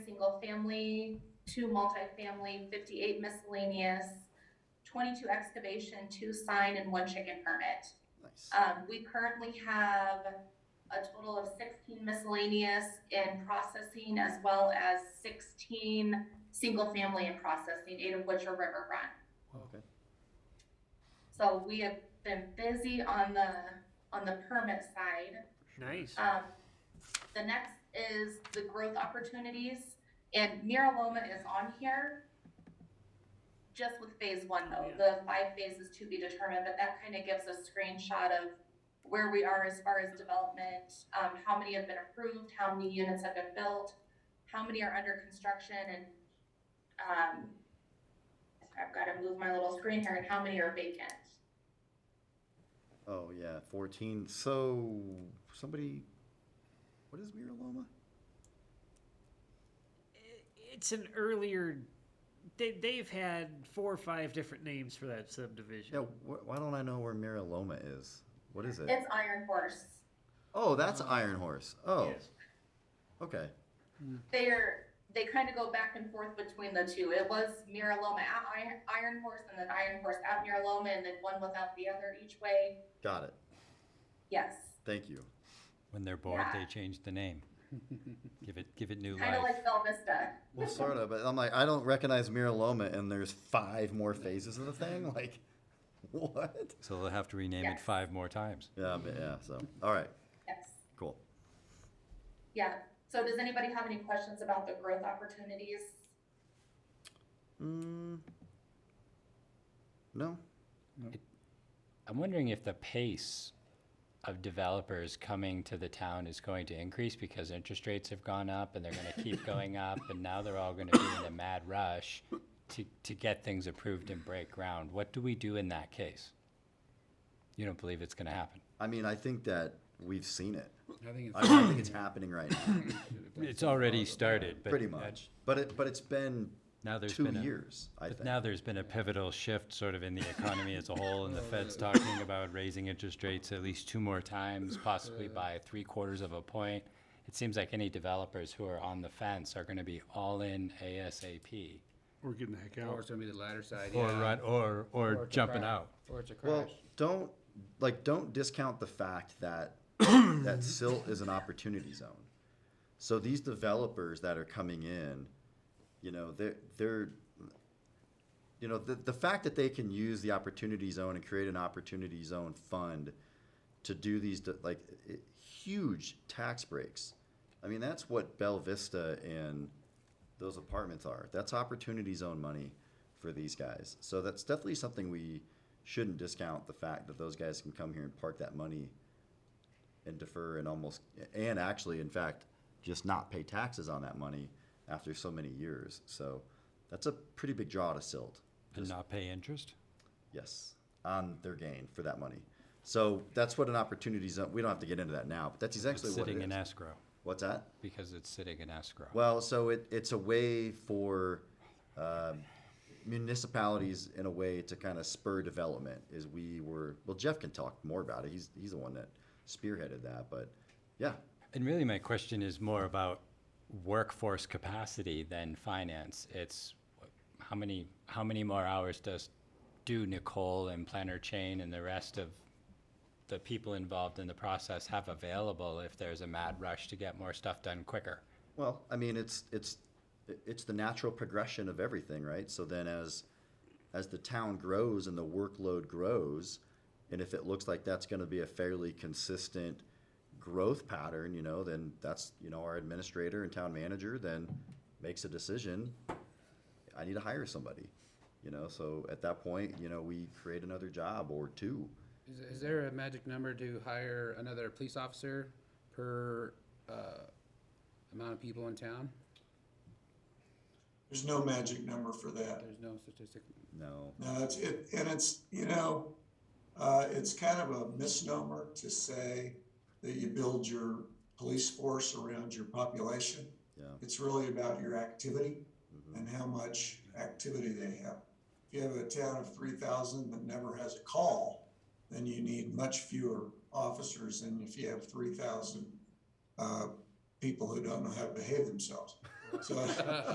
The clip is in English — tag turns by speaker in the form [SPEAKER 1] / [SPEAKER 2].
[SPEAKER 1] single-family, two multifamily, fifty-eight miscellaneous, twenty-two excavation, two sign, and one chicken permit.
[SPEAKER 2] Nice.
[SPEAKER 1] Um, we currently have a total of sixteen miscellaneous in processing as well as sixteen single-family in processing, eight of which are river run.
[SPEAKER 2] Okay.
[SPEAKER 1] So we have been busy on the, on the permit side.
[SPEAKER 3] Nice.
[SPEAKER 1] Um, the next is the growth opportunities, and Miraloma is on here. Just with phase one though, the five phases to be determined, but that kind of gives a screenshot of where we are as far as development, um, how many have been approved, how many units have been built, how many are under construction, and, um, I've got to move my little screen here, and how many are vacant.
[SPEAKER 2] Oh, yeah, fourteen, so, somebody, what is Miraloma?
[SPEAKER 3] It's an earlier. They, they've had four or five different names for that subdivision.
[SPEAKER 2] Yeah, wh- why don't I know where Miraloma is? What is it?
[SPEAKER 1] It's Iron Horse.
[SPEAKER 2] Oh, that's Iron Horse, oh,
[SPEAKER 3] Yes.
[SPEAKER 2] okay,
[SPEAKER 1] they're they kind of go back and forth between the two. It was Miraloma at Iron, Iron Horse and then Iron Horse at Miraloma and then one without the other each way.
[SPEAKER 2] got it,
[SPEAKER 1] Yes.
[SPEAKER 2] thank you.
[SPEAKER 4] When they're bored,
[SPEAKER 1] Yeah.
[SPEAKER 4] they change the name. Give it, give it new
[SPEAKER 1] Kind of
[SPEAKER 4] life.
[SPEAKER 1] like Bell Vista.
[SPEAKER 2] Well, sort of, but I'm like, I don't recognize Miraloma and there's five more phases of the thing, like, what?
[SPEAKER 4] So they'll have to rename
[SPEAKER 1] Yeah.
[SPEAKER 4] it five more times.
[SPEAKER 2] Yeah, but yeah, so, all right,
[SPEAKER 1] Yes.
[SPEAKER 2] cool.
[SPEAKER 1] Yeah. So does anybody have any questions about the growth opportunities?
[SPEAKER 2] Mm. No?
[SPEAKER 4] I'm wondering if the pace of developers coming to the town is going to increase because interest rates have gone up and they're gonna keep going up and now they're all gonna be in a mad rush to, to get things approved and break ground. What do we do in that case? You don't believe it's gonna happen?
[SPEAKER 2] I mean, I think that we've seen it.
[SPEAKER 5] I think
[SPEAKER 2] I mean, I think it's happening right now,
[SPEAKER 4] It's already started, but.
[SPEAKER 2] pretty
[SPEAKER 4] that-
[SPEAKER 2] much. But it, but it's been
[SPEAKER 4] Now there's
[SPEAKER 2] two
[SPEAKER 4] been a.
[SPEAKER 2] years, I
[SPEAKER 4] But
[SPEAKER 2] think.
[SPEAKER 4] now there's been a pivotal shift sort of in the economy as a whole, and the Fed's talking about raising interest rates at least two more times, possibly by three quarters of a point. It seems like any developers who are on the fence are gonna be all in ASAP.
[SPEAKER 5] We're getting the heck
[SPEAKER 6] Or
[SPEAKER 5] out.
[SPEAKER 6] Oh, it's gonna be the latter side,
[SPEAKER 4] Or
[SPEAKER 6] yeah.
[SPEAKER 4] run, or,
[SPEAKER 6] Or
[SPEAKER 4] or
[SPEAKER 6] it's a
[SPEAKER 4] jumping
[SPEAKER 6] crash.
[SPEAKER 4] out.
[SPEAKER 6] Or it's a
[SPEAKER 2] Well,
[SPEAKER 6] crash.
[SPEAKER 2] don't, like, don't discount the fact that, that silt is an opportunity zone. So these developers that are coming in, you know, they're, they're, you know, the, the fact that they can use the opportunity zone and create an opportunity zone fund to do these, de- like, i- huge tax breaks. I mean, that's what Bell Vista and those apartments are. That's opportunity zone money for these guys. So that's definitely something we shouldn't discount the fact that those guys can come here and park that money and defer and almost, and actually, in fact, just not pay taxes on that money after so many years. So that's a pretty big draw to silt.
[SPEAKER 4] And not pay interest?
[SPEAKER 2] Yes, on their gain for that money. So that's what an opportunity zone. We don't have to get into that now, but that's
[SPEAKER 4] It's
[SPEAKER 2] exactly what it
[SPEAKER 4] sitting in
[SPEAKER 2] is.
[SPEAKER 4] escrow,
[SPEAKER 2] What's that?
[SPEAKER 4] because it's sitting in escrow.
[SPEAKER 2] Well, so it, it's a way for um, municipalities, in a way, to kind of spur development. Is we were well, Jeff can talk more about it. He's he's the one that spearheaded that. But yeah,
[SPEAKER 4] And really, my question is more about workforce capacity than finance. It's wh- how many how many more hours does do Nicole and Planner Chain and the rest of the people involved in the process have available if there's a mad rush to get more stuff done quicker?
[SPEAKER 2] Well, I mean, it's it's it's the natural progression of everything, right? So then, as as the town grows and the workload grows, and if it looks like that's going to be a fairly consistent growth pattern, you know, then that's you know our administrator and town manager then makes a decision. I need to hire somebody, you know. So at that point, you know, we create another job or two.
[SPEAKER 6] Is, is there a magic number to hire another police officer per, uh, amount of people in town?
[SPEAKER 7] There's no magic number for that.
[SPEAKER 6] There's no statistic.
[SPEAKER 2] No,
[SPEAKER 7] No, it's, it, and it's, you know, uh, it's kind of a misnomer to say that you build your police force around your population.
[SPEAKER 2] yeah,
[SPEAKER 7] It's really about your activity
[SPEAKER 2] mhm,
[SPEAKER 7] and how much activity they have. If you have a town of three thousand that never has a call, then you need much fewer officers than if you have three thousand, uh, people who don't know how to behave themselves. So